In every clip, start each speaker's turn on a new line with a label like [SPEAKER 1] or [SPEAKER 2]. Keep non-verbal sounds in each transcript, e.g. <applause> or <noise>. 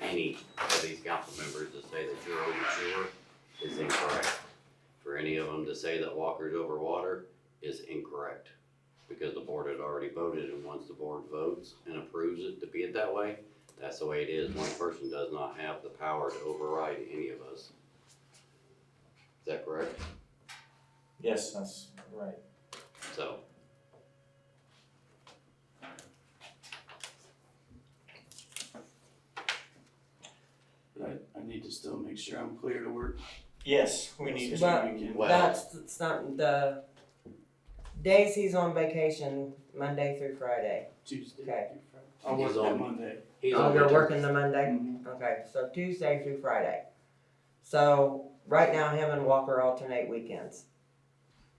[SPEAKER 1] any of these council members to say that you're over sewer is incorrect. For any of them to say that Walker's over water is incorrect. Because the board had already voted and once the board votes and approves it to be it that way, that's the way it is. One person does not have the power to override any of us. Is that correct?
[SPEAKER 2] Yes, that's right.
[SPEAKER 1] So.
[SPEAKER 3] But I, I need to still make sure I'm clear to work.
[SPEAKER 2] Yes, we need
[SPEAKER 3] this
[SPEAKER 2] to.
[SPEAKER 4] But-
[SPEAKER 3] weekend.
[SPEAKER 1] Well-
[SPEAKER 4] That's it's not the days he's on vacation, Monday through Friday.
[SPEAKER 3] Tuesday.
[SPEAKER 4] Okay.
[SPEAKER 3] through Friday. I'll work
[SPEAKER 1] He's on-
[SPEAKER 3] that Monday.
[SPEAKER 1] he's
[SPEAKER 4] Oh,
[SPEAKER 1] on
[SPEAKER 4] you're
[SPEAKER 1] vacation.
[SPEAKER 4] working the Monday?
[SPEAKER 3] Mhm.
[SPEAKER 4] Okay, so Tuesday through Friday. So right now him and Walker alternate weekends.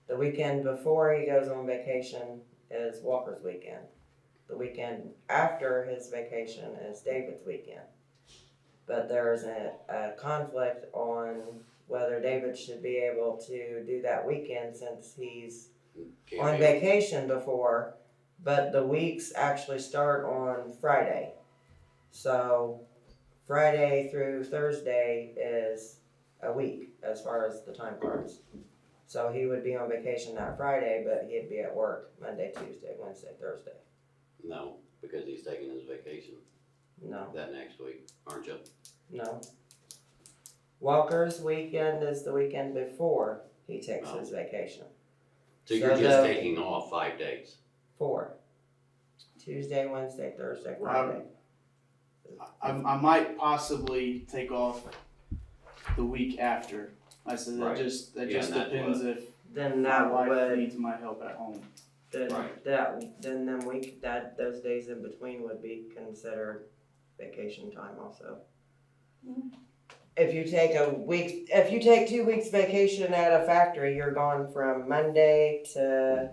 [SPEAKER 4] The weekend before he goes on vacation is Walker's weekend. The weekend after his vacation is David's weekend. But there's a, a conflict on whether David should be able to do that weekend since he's
[SPEAKER 1] Can't
[SPEAKER 4] on
[SPEAKER 1] be-
[SPEAKER 4] vacation before, but the weeks actually start on Friday. So Friday through Thursday is a week as far as the time cards. So he would be on vacation that Friday, but he'd be at work Monday, Tuesday, Wednesday, Thursday.
[SPEAKER 1] No, because he's taking his vacation
[SPEAKER 4] No,
[SPEAKER 1] that next week, aren't you?
[SPEAKER 4] no. Walker's weekend is the weekend before he takes his vacation.
[SPEAKER 1] So you're
[SPEAKER 4] So
[SPEAKER 1] just
[SPEAKER 4] the-
[SPEAKER 1] taking off five days.
[SPEAKER 4] Four. Tuesday, Wednesday, Thursday,
[SPEAKER 3] Wow.
[SPEAKER 4] Friday.
[SPEAKER 3] I, I might possibly take off the week after. I said that
[SPEAKER 1] Right.
[SPEAKER 3] just, that
[SPEAKER 1] Yeah,
[SPEAKER 3] just
[SPEAKER 1] and that's
[SPEAKER 3] depends if
[SPEAKER 4] Then
[SPEAKER 3] my
[SPEAKER 4] that
[SPEAKER 3] wife
[SPEAKER 4] would
[SPEAKER 3] needs my help at home.
[SPEAKER 4] then
[SPEAKER 1] Right.
[SPEAKER 4] that, then then we, that, those days in between would be considered vacation time also. If you take a week, if you take two weeks vacation at a factory, you're gone from Monday to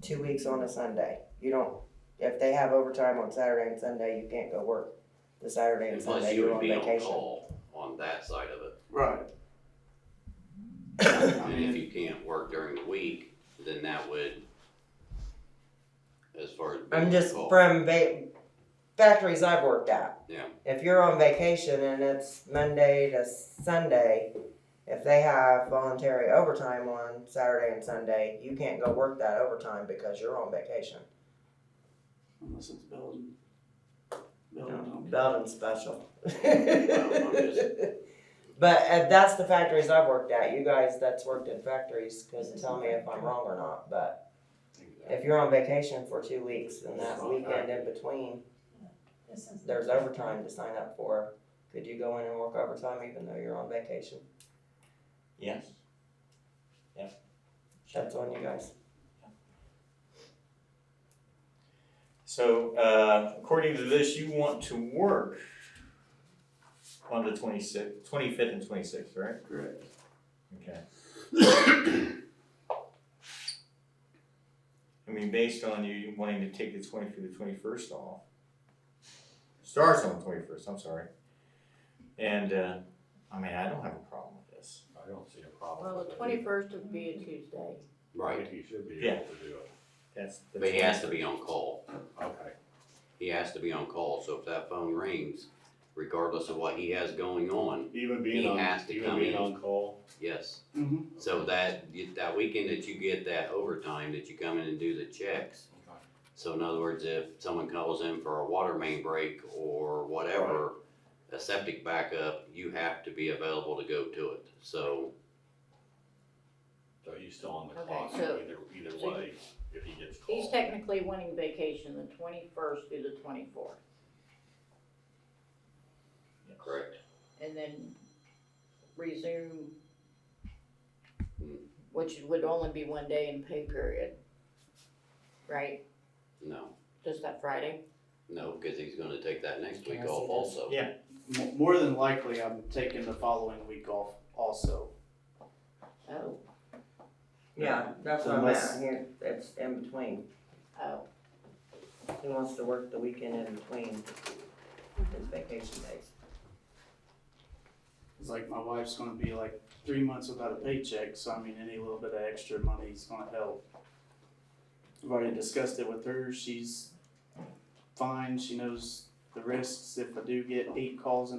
[SPEAKER 4] two weeks on a Sunday. You don't, if they have overtime on Saturday and Sunday, you can't go work the Saturday and
[SPEAKER 1] And plus
[SPEAKER 4] Sunday
[SPEAKER 1] you
[SPEAKER 4] you're
[SPEAKER 1] would
[SPEAKER 4] on
[SPEAKER 1] be on
[SPEAKER 4] vacation.
[SPEAKER 1] call on that side of it.
[SPEAKER 3] Right.
[SPEAKER 4] <laughs>
[SPEAKER 3] I
[SPEAKER 1] And if
[SPEAKER 3] mean,
[SPEAKER 1] you can't work during the week, then that would, as far as. being
[SPEAKER 4] I'm
[SPEAKER 1] on
[SPEAKER 4] just
[SPEAKER 1] call.
[SPEAKER 4] from va- factories I've worked at.
[SPEAKER 1] Yeah.
[SPEAKER 4] If you're on vacation and it's Monday to Sunday, if they have voluntary overtime on Saturday and Sunday, you can't go work that overtime because you're on vacation.
[SPEAKER 3] unless it's Belgian.
[SPEAKER 4] No,
[SPEAKER 3] Belgian.
[SPEAKER 4] Belgium special.
[SPEAKER 1] I'm just-
[SPEAKER 4] But uh, that's the factories I've worked at. You guys that's worked in factories can tell me if I'm wrong or not, but if you're on vacation for two weeks and that weekend in between, there's overtime to sign up for, could you go in and work overtime even though you're on vacation?
[SPEAKER 2] Yes.
[SPEAKER 4] That's on you guys.
[SPEAKER 2] So, uh, according to this, you want to work on the 26th, 25th and 26th, right?
[SPEAKER 3] Correct.
[SPEAKER 2] Okay. I mean, based on you wanting to take the twenty through the twenty-first off. Starts on the twenty-first, I'm sorry. And, uh, I mean, I don't have a problem with this.
[SPEAKER 5] I don't see a problem
[SPEAKER 6] Well,
[SPEAKER 5] with
[SPEAKER 6] the
[SPEAKER 5] it.
[SPEAKER 6] twenty-first would be a Tuesday.
[SPEAKER 1] Right,
[SPEAKER 5] He should be
[SPEAKER 2] Yeah.
[SPEAKER 5] able to do it.
[SPEAKER 2] That's.
[SPEAKER 1] but he has to be on call.
[SPEAKER 5] Okay.
[SPEAKER 1] He has to be on call, so if that phone rings, regardless of what he has going on,
[SPEAKER 5] Even
[SPEAKER 1] He
[SPEAKER 5] being on,
[SPEAKER 1] has to
[SPEAKER 5] even
[SPEAKER 1] come
[SPEAKER 5] being
[SPEAKER 1] in.
[SPEAKER 5] on call.
[SPEAKER 1] yes.
[SPEAKER 3] Mm-hmm.
[SPEAKER 1] So that, that weekend that you get that overtime, that you come in and do the checks.
[SPEAKER 5] Okay.
[SPEAKER 1] So in other words, if someone calls in for a water main break or whatever, a septic backup, you have to be available to go to it. So,
[SPEAKER 5] So he's still on the
[SPEAKER 6] Okay,
[SPEAKER 5] clock
[SPEAKER 6] so-
[SPEAKER 5] either, either
[SPEAKER 6] so
[SPEAKER 5] way, if he gets
[SPEAKER 6] He's
[SPEAKER 5] called.
[SPEAKER 6] technically wanting vacation the twenty-first through the twenty-fourth,
[SPEAKER 1] correct,
[SPEAKER 6] and then resume, which would only be one day in pay period. Right,
[SPEAKER 1] no,
[SPEAKER 6] just that Friday?
[SPEAKER 1] no, because he's gonna take that next week
[SPEAKER 4] Can I see
[SPEAKER 1] off
[SPEAKER 4] that?
[SPEAKER 1] also.
[SPEAKER 2] Yeah.
[SPEAKER 3] M- more than likely, I'm taking the following week off also.
[SPEAKER 6] Oh,
[SPEAKER 4] Yeah, that's what I'm
[SPEAKER 3] Unless-
[SPEAKER 4] at, here, it's in between,
[SPEAKER 6] oh,
[SPEAKER 4] he wants to work the weekend in between his vacation days.
[SPEAKER 3] It's like my wife's gonna be like three months without a paycheck, so I mean, any little bit of extra money is gonna help. I've already discussed it with her, she's fine, she knows the risks if I do get eight calls in a